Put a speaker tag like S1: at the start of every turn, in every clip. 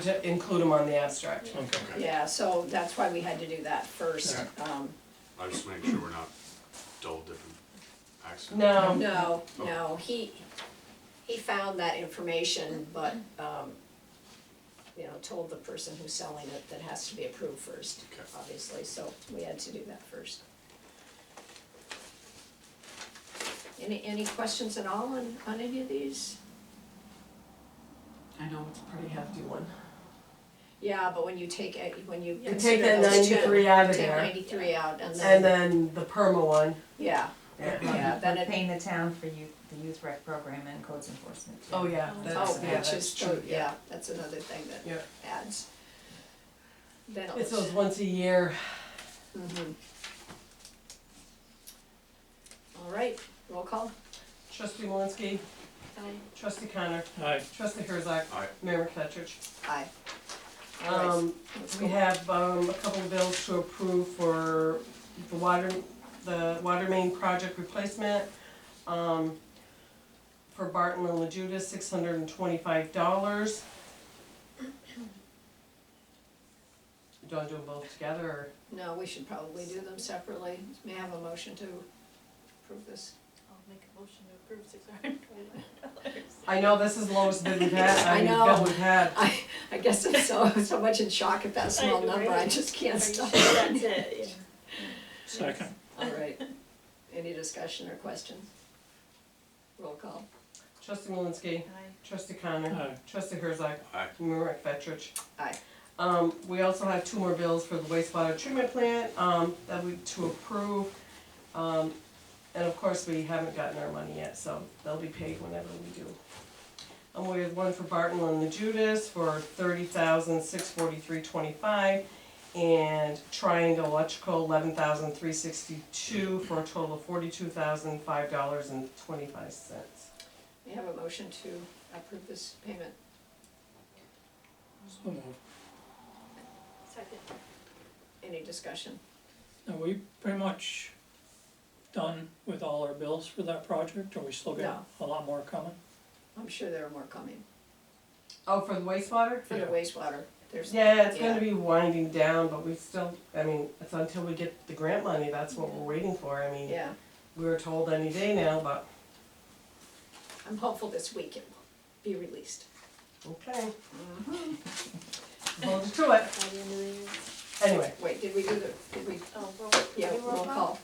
S1: to include them on the abstract.
S2: Okay.
S3: Yeah, so that's why we had to do that first. Um,
S4: I just make sure we're not double dipping accents.
S1: No,
S3: No, no, he, he found that information, but, um, you know, told the person who's selling it that has to be approved first,
S4: Okay.
S3: obviously, so we had to do that first. Any, any questions at all on, on any of these?
S1: I know, it's a pretty hefty one.
S3: Yeah, but when you take, a- when you
S1: You take
S3: consider
S1: that
S3: those two,
S1: ninety-three out of
S3: take
S1: there,
S3: ninety-three out and
S1: and
S3: then,
S1: then the perma one,
S3: yeah,
S1: yeah,
S3: yeah, then
S5: We're
S3: it,
S5: paying the town for youth, the youth rec program and codes enforcement. too.
S1: oh yeah, that's,
S3: oh,
S1: yeah,
S3: which
S1: that's
S3: is,
S1: true, yeah.
S3: yeah, that's another thing that
S1: Yeah.
S3: ads. Then
S1: It's those
S3: it's,
S1: once a year,
S3: mhm. All right, roll call.
S1: trustee Malinsky, trustee Connor,
S2: Aye.
S1: trustee Herzog,
S4: Aye.
S1: Mayor McFetrich.
S3: Aye. All right,
S1: Um,
S3: let's
S1: we
S3: go.
S1: have, um, a couple of bills to approve for the water, the water main project replacement. Um, for Barton and La Judas, six hundred and twenty-five dollars. Do I do them both together, or?
S3: No, we should probably do them separately. May I have a motion to approve this?
S6: I'll make a motion to approve six hundred and twenty-nine dollars.
S1: I know this is the lowest bid we've had, I
S3: I
S1: mean,
S3: know.
S1: bill we've had.
S3: I, I guess I'm so, so much in shock at that small
S6: I know,
S3: number, I
S6: right?
S3: just can't stop.
S6: That's it, yeah.
S2: Second.
S3: All right, any discussion or questions? Roll call.
S1: Trustee Malinsky,
S6: Aye.
S1: trustee Connor,
S2: Aye.
S1: trustee Herzog,
S4: Aye.
S1: Mayor McFetrich.
S3: Aye.
S1: Um, we also have two more bills for the wastewater treatment plant, um, that we, to approve. Um, and of course, we haven't gotten our money yet, so they'll be paid whenever we do. And we have one for Barton and the Judas for thirty thousand six forty-three twenty-five. And Triangle Electrical, eleven thousand three sixty-two for a total of forty-two thousand five dollars and twenty-five cents.
S3: May I have a motion to approve this payment?
S2: So moved.
S6: Second.
S3: Any discussion?
S2: Are we pretty much done with all our bills for that project, or we still got a lot more coming?
S3: I'm sure there are more coming.
S1: Oh, for the wastewater?
S3: For the
S2: Yeah.
S3: wastewater, there's,
S1: Yeah, it's
S3: Yeah.
S1: gonna be winding down, but we still, I mean, it's until we get the grant money, that's what we're waiting for, I mean,
S3: yeah,
S1: we were told any day now, but,
S3: I'm hopeful this week it will be released.
S1: okay. Hold you to it,
S6: By the end of the year.
S1: anyway,
S3: Wait, did we do the, did we,
S6: Oh, roll.
S3: yeah,
S6: do
S3: roll call?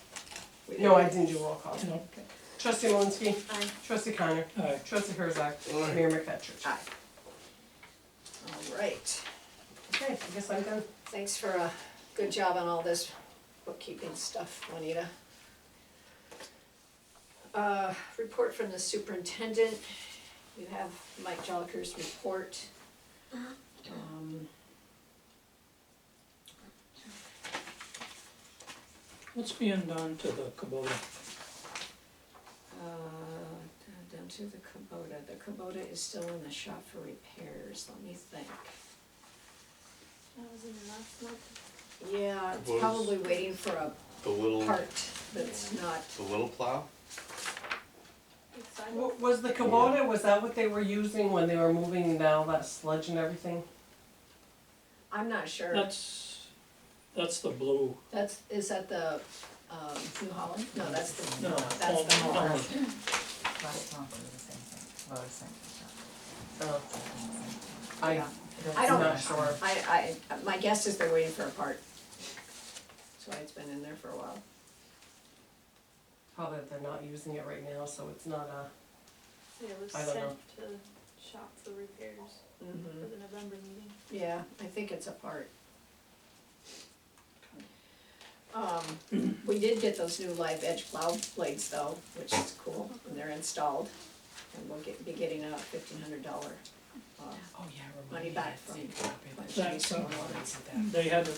S3: We
S1: no, I
S3: did.
S1: didn't do roll call.
S2: No?
S1: Trustee Malinsky,
S6: Aye.
S1: trustee Connor,
S2: Aye.
S1: trustee Herzog, Mayor McFetrich.
S3: Aye. All right,
S1: Okay, I guess I'm done.
S3: thanks for a good job on all this bookkeeping stuff, Juanita. Uh, report from the superintendent, you have Mike Joliker's report. Um,
S2: What's being done to the Kubota?
S3: Uh, down to the Kubota, the Kubota is still in the shop for repairs, let me think.
S6: That was in the last month.
S3: Yeah, it's
S4: Kubota's-
S3: probably waiting for a
S4: The little,
S3: part that's not,
S4: the little plow?
S6: It's fine.
S1: W- Was the Kubota, was that what they were using when they were moving now, that sludge and everything?
S3: I'm not sure,
S2: That's, that's the blue.
S3: that's, is that the, um, New Holland? No, that's the,
S2: No,
S3: that's the
S2: all-
S3: Hummer.
S5: Lotus Pond is the same thing, Lotus Center shop.
S1: Oh, I,
S3: Yeah. I
S1: I'm
S3: don't-
S1: not sure.
S3: I, I, my guess is they're waiting for a part. That's why it's been in there for a while.
S1: Probably they're not using it right now, so it's not a,
S6: It was
S1: I don't know.
S6: sent to shop for repairs for
S3: Mm-hmm.
S6: the November meeting.
S3: Yeah, I think it's a part. Um, we did get those new live edge plow blades though, which is cool, and they're installed. And we'll get, be getting a fifteen hundred dollar, uh,
S1: oh yeah,
S3: money back from.
S1: But
S2: That,
S3: Chase
S2: uh,
S3: Automotive.
S2: They had to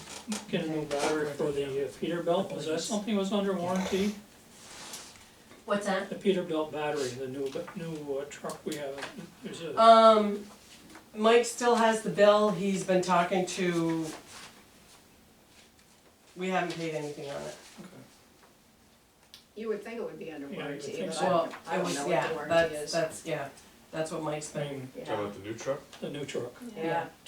S2: get a new battery for the uh, Peterbilt, was that something that was under warranty?
S1: What's that?
S2: The Peterbilt battery, the new, new uh, truck we have, there's
S3: Uh,
S2: a,
S1: Um, Mike still has the bill, he's been talking to. We haven't paid anything on it.
S2: okay.
S3: You would think it would be under
S2: Yeah, you would
S3: warranty,
S2: think
S3: but I
S2: so.
S3: don't, I
S1: it
S3: don't
S1: was-
S3: know
S1: yeah,
S3: what the warranty
S1: that's-
S3: is.
S1: That's, yeah, that's what Mike's
S2: I
S1: been.
S2: mean,
S3: Yeah.
S4: Talking about the new truck?
S2: the new truck.
S3: Yeah.